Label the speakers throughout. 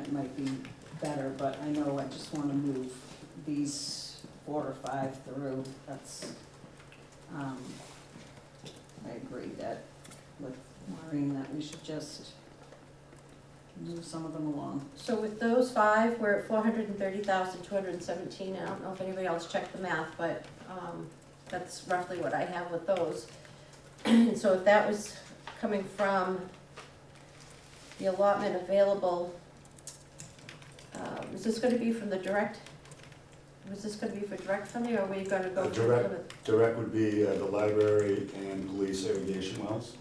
Speaker 1: it might be better, but I know I just wanna move these four or five through, that's, um, I agree that with Maureen, that we should just move some of them along.
Speaker 2: So with those five, we're at four hundred and thirty thousand, two hundred and seventeen, I don't know if anybody else checked the math, but, um, that's roughly what I have with those. So if that was coming from the allotment available, uh, is this gonna be from the direct? Was this gonna be for direct funding, or were you gonna go?
Speaker 3: Uh,
Speaker 2: to
Speaker 3: direct. Direct would be uh, the library and police irrigation wells,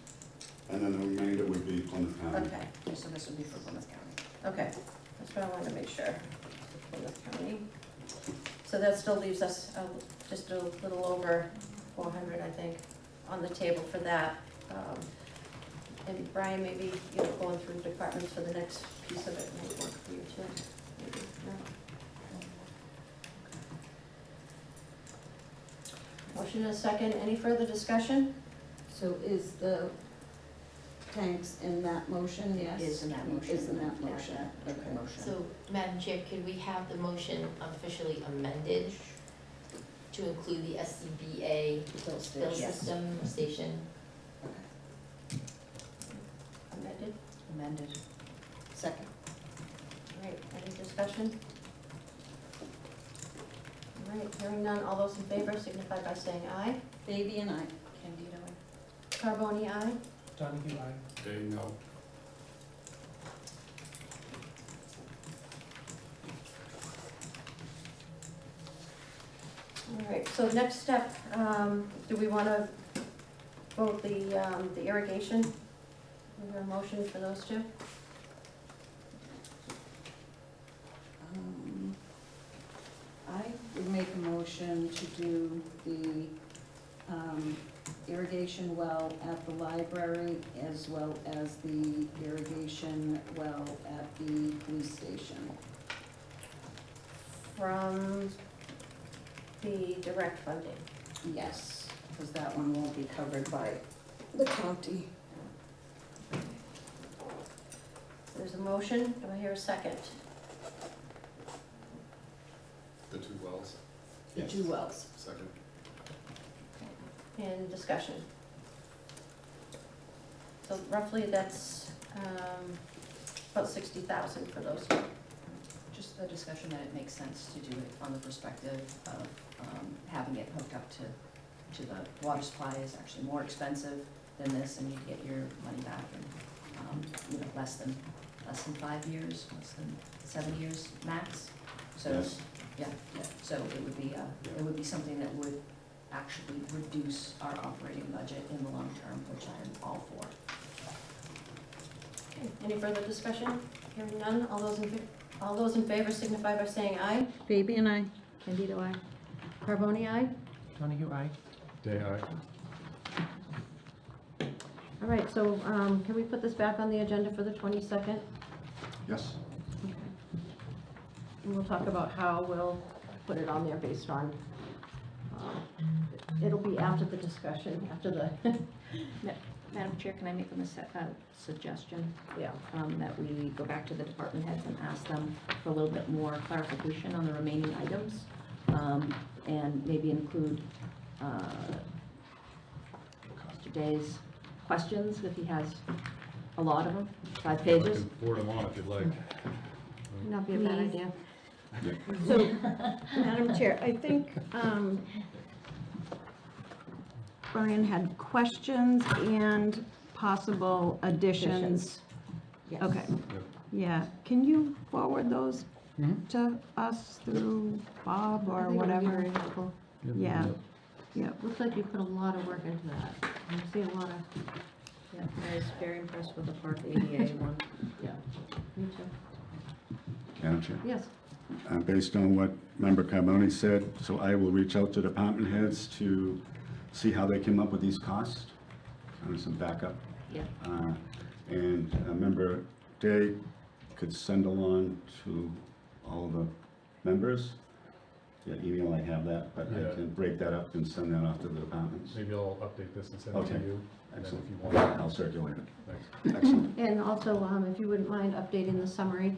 Speaker 3: and then the remainder would be Plymouth County.
Speaker 2: Okay.
Speaker 1: So this would be for Plymouth County.
Speaker 2: Okay, that's what I wanted to make sure. Plymouth County. So that still leaves us uh, just a little over four hundred, I think, on the table for that. Um, And Brian, maybe, you know, going through departments for the next piece of it might work for you too. maybe, no? Motion and a second, any further discussion?
Speaker 4: So is the tanks in that motion?
Speaker 2: Yes.
Speaker 1: Is in that motion.
Speaker 4: Is in that motion.
Speaker 1: Yeah, that
Speaker 4: Okay.
Speaker 1: motion.
Speaker 5: So, Madam Chair, could we have the motion officially amended to include the SCBA
Speaker 4: Bill
Speaker 5: bill
Speaker 4: station.
Speaker 1: Yes.
Speaker 5: system station?
Speaker 2: Amended?
Speaker 1: Amended.
Speaker 4: Second.
Speaker 2: All right, any discussion? All right, hearing none, all those in favor signify by saying aye.
Speaker 4: Baby and I.
Speaker 1: Candido, I
Speaker 2: Carboni, aye.
Speaker 6: Donahue, aye.
Speaker 3: They know.
Speaker 2: All right, so next step, um, do we want to vote the, um, the irrigation? Is there a motion for those two?
Speaker 4: Um, I would make a motion to do the um, irrigation well at the library as well as the irrigation well at the police station.
Speaker 2: From the direct funding.
Speaker 4: Yes.
Speaker 1: because that one won't be covered by
Speaker 4: The county.
Speaker 2: There's a motion, do I hear a second?
Speaker 3: The two wells,
Speaker 4: The two wells.
Speaker 3: second.
Speaker 2: And discussion. So roughly, that's, um, about sixty thousand for those two.
Speaker 7: Just the discussion that it makes sense to do it from the perspective of um, having it hooked up to, to the water supply is actually more expensive than this, and you get your money back in, um, you know, less than, less than five years, less than seven years max. So,
Speaker 3: Yes.
Speaker 7: yeah, yeah, so it would be, uh, it would be something that would actually reduce our operating budget in the long term, which I am all for.
Speaker 2: Okay, Any further discussion? Hearing none, all those in, fa- all those in favor signify by saying aye.
Speaker 4: Baby and I.
Speaker 2: Candido, aye. Carboni, aye.
Speaker 6: Donahue, aye.
Speaker 3: They are.
Speaker 2: All right, so um, can we put this back on the agenda for the 22nd?
Speaker 3: Yes.
Speaker 2: Okay. And we'll talk about how we'll put it on there based on, um, it'll be after the discussion, after the,
Speaker 8: Madam Chair, can I make a mis- a suggestion
Speaker 2: yeah.
Speaker 8: um, that we go back to the department heads and ask them for a little bit more clarification on the remaining items? um, And maybe include uh, Mr. Day's questions, if he has a lot of them, five pages.
Speaker 3: Board them on if you'd like.
Speaker 2: Not
Speaker 8: be a bad
Speaker 2: idea.
Speaker 8: So, Madam Chair, I think um, Brian had questions and possible additions.
Speaker 4: Yes.
Speaker 8: Okay, yeah, can you forward those
Speaker 3: Mhm.
Speaker 8: to us through Bob or whatever? Yeah, yeah,
Speaker 2: Looks like you put a lot of work into that. I see a lot of,
Speaker 8: yeah, I was very impressed with the Park ADA one, yeah.
Speaker 2: me too.
Speaker 3: Madam Chair.
Speaker 2: Yes.
Speaker 3: Uh, Based on what Member Carbone said, so I will reach out to department heads to see how they came up with these costs, and some backup.
Speaker 8: Yeah.
Speaker 3: Uh, And uh, Member Day could send along to all the members. Yeah, email, I have that, but I
Speaker 9: Yeah.
Speaker 3: can break that up and send that off to the departments.
Speaker 9: Maybe I'll update this and send it to
Speaker 3: Okay.
Speaker 9: you, and then
Speaker 3: Excellent.
Speaker 9: if you want,
Speaker 3: I'll circulate it.
Speaker 9: thanks.
Speaker 3: Excellent.
Speaker 2: And also, um, if you wouldn't mind updating the summary